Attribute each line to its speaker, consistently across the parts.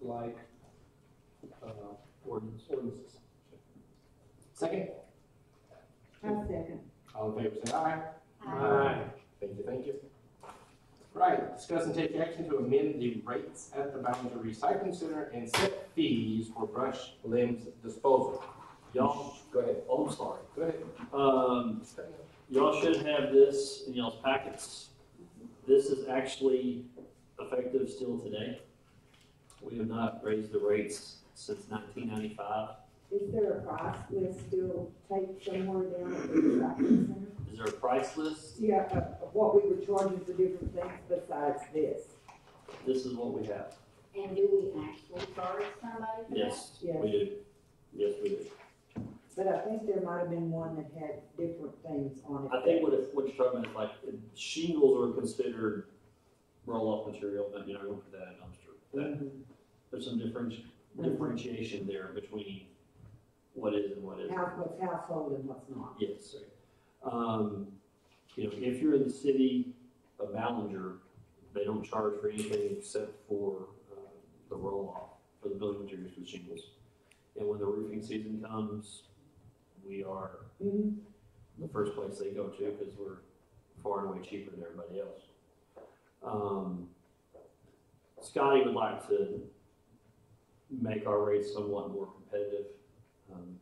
Speaker 1: like, uh, ordinance- ordinances. Second,
Speaker 2: I'll second.
Speaker 1: all in favor, say aye. Thank you, thank you. Right, discuss and take action to amend the rates at the Ballinger Recycling Center and set fees for brush limbs disposal.
Speaker 3: Y'all,
Speaker 1: Go ahead,
Speaker 3: oh, I'm sorry.
Speaker 1: go ahead.
Speaker 3: Um, y'all should have this in y'all's packets. This is actually effective still today. We have not raised the rates since nineteen ninety-five.
Speaker 2: Is there a price list still taped somewhere down at the recycling center?
Speaker 3: Is there a price list?
Speaker 2: Yeah, of of what we were charging for different things besides this.
Speaker 3: This is what we have.
Speaker 4: And do we actually charge somebody for that?
Speaker 3: Yes,
Speaker 2: Yeah.
Speaker 3: we do. Yes, we do.
Speaker 2: But I think there might have been one that had different things on it.
Speaker 3: I think what it, what you're talking about is like shingles are considered roll-off material, but you're not going to put that in a dumpster. That-
Speaker 2: Mhm.
Speaker 3: There's some differenti- differentiation there between what is and what isn't.
Speaker 2: House, what's household and what's not.
Speaker 3: Yes. Um, you know, if you're in the city of Ballinger, they don't charge for anything except for, uh, the roll-off for the building materials with shingles. And when the roofing season comes, we are
Speaker 2: Mhm.
Speaker 3: the first place they go to because we're far and away cheaper than everybody else. Um, Scotty would like to make our rates somewhat more competitive um,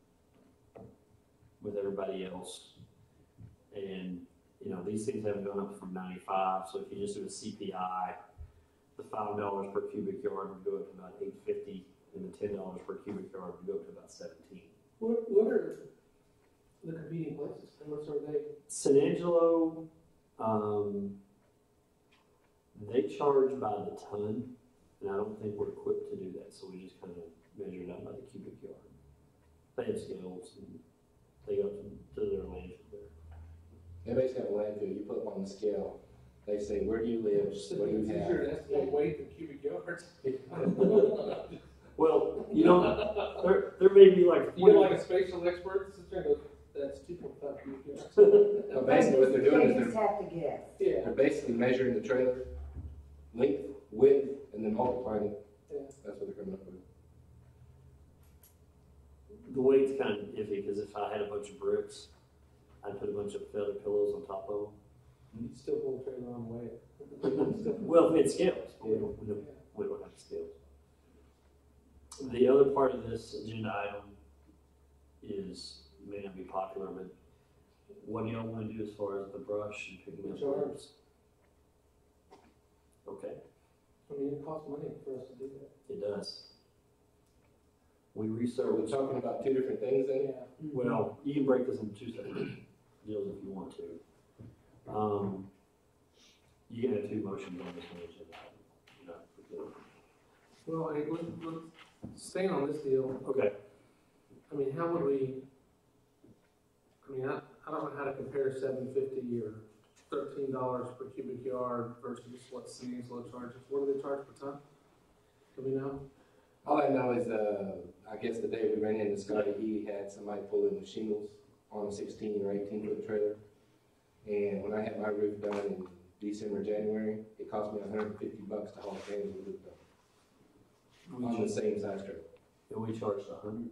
Speaker 3: with everybody else. And, you know, these things haven't gone up from 95, so if you just do a CPI, the $5 per cubic yard would go up to about 850 and the $10 per cubic yard would go up to about 17
Speaker 5: What, what are the competing places, and what sort of they,
Speaker 3: San Angelo, um, they charge by the ton, and I don't think we're equipped to do that, so we just kind of measure it out by the cubic yard. They have scales, and they go to, to their landfill there.
Speaker 1: They basically have a landfill, you put them on the scale, they say, where do you live,
Speaker 5: it's
Speaker 1: what do you
Speaker 5: easier to estimate weight than cubic yards.
Speaker 1: have?
Speaker 5: You
Speaker 3: Well, you know, there, there may be like forty.
Speaker 5: know, like a spatial expert, sits there and goes, that's two point five cubic yards.
Speaker 1: But basically what they're doing is
Speaker 2: They
Speaker 1: they're
Speaker 2: just have to guess.
Speaker 5: Yeah,
Speaker 1: They're basically measuring the trailer length, width, and then multiplying it.
Speaker 5: Yeah.
Speaker 1: That's what they're coming up with.
Speaker 3: The weight's kind of iffy because if I had a bunch of bricks, I'd put a bunch of feather pillows on top of
Speaker 5: you still pull the trailer on the way. Still-
Speaker 3: them. Well, if we had scales, but we don't, we don't
Speaker 5: Yeah.
Speaker 3: we don't have scales. The other part of this agenda item is, may not be popular, but what do y'all wanna do as far as the brush and picking up
Speaker 5: Which are-
Speaker 3: limbs? Okay,
Speaker 5: I mean, it costs money for us to do that.
Speaker 3: it does. We
Speaker 1: So we're
Speaker 3: research,
Speaker 1: talking about two different things then?
Speaker 5: Yeah.
Speaker 3: well, you can break this into two separate deals if you want to. Um, you can have two motions on this one agenda item. you know, for
Speaker 5: Well, I, let's, let's, staying on this deal,
Speaker 3: the- Okay,
Speaker 5: I mean, how would we, I mean, I, I don't know how to compare seven fifty or thirteen dollars per cubic yard versus what San Angelo charges. What do they charge per ton? Do we know?
Speaker 1: All I know is, uh, I guess the day we ran into Scotty, he had somebody pull in the shingles on a sixteen or eighteen foot trailer. And when I had my roof done in December, January, it cost me hundred and fifty bucks to haul a can of roof done
Speaker 3: we
Speaker 1: on the
Speaker 3: just,
Speaker 1: same size trailer.
Speaker 3: and we charged a hundred,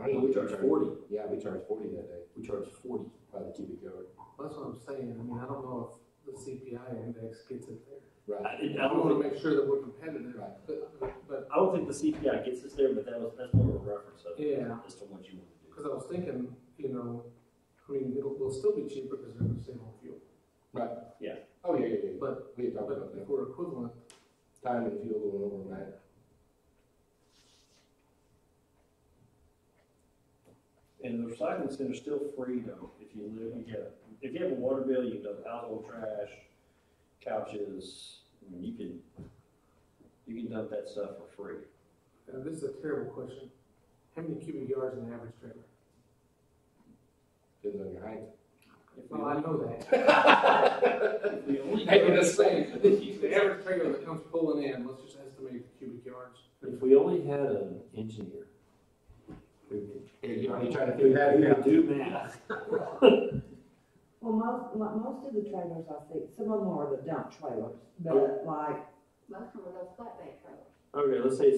Speaker 1: I don't know
Speaker 3: we
Speaker 1: what you
Speaker 3: charged forty.
Speaker 1: Yeah, we charged forty that day
Speaker 3: We charge forty.
Speaker 1: by the cubic yard.
Speaker 5: That's what I'm saying. I mean, I don't know if the CPI index gets it there.
Speaker 1: Right.
Speaker 3: I, I
Speaker 5: I want
Speaker 3: don't
Speaker 5: to
Speaker 3: think,
Speaker 5: make sure that we're competitive,
Speaker 1: Right.
Speaker 5: but, but,
Speaker 3: I don't think the CPI gets us there, but that was, that's more of a reference of it
Speaker 5: yeah,
Speaker 3: as to what you want to
Speaker 5: because I was thinking, you know, I mean, it'll, will still be cheaper because they're gonna save on fuel.
Speaker 1: Oh, yeah, yeah, yeah.
Speaker 5: But-
Speaker 1: We had talked
Speaker 5: But
Speaker 1: about
Speaker 5: if
Speaker 1: that.
Speaker 5: we're equivalent,
Speaker 1: Time and fuel going over that.
Speaker 3: do. And the recycling center's still free though, if you live, you get, if you have a water bill, you can dump household trash, couches, I mean, you can, you can dump that stuff for free.
Speaker 5: uh, this is a terrible question. How many cubic yards in an average trailer?
Speaker 1: Depends on your height.
Speaker 3: If we
Speaker 5: Well, I
Speaker 3: only-
Speaker 5: know that.
Speaker 3: if we only
Speaker 1: Making
Speaker 3: go-
Speaker 1: us say.
Speaker 5: The average trailer that comes pulling in, let's just estimate the cubic yards.
Speaker 3: If we only had an engineer who could,
Speaker 1: Are you trying to
Speaker 3: who
Speaker 1: figure that
Speaker 3: could
Speaker 1: out?
Speaker 3: do math.
Speaker 2: Well, most, mo- most of the trailers I see, some
Speaker 3: Oh.
Speaker 2: of them are the dump trailers, but like
Speaker 4: Most of them are those flatbed trailers.
Speaker 3: Okay, let's say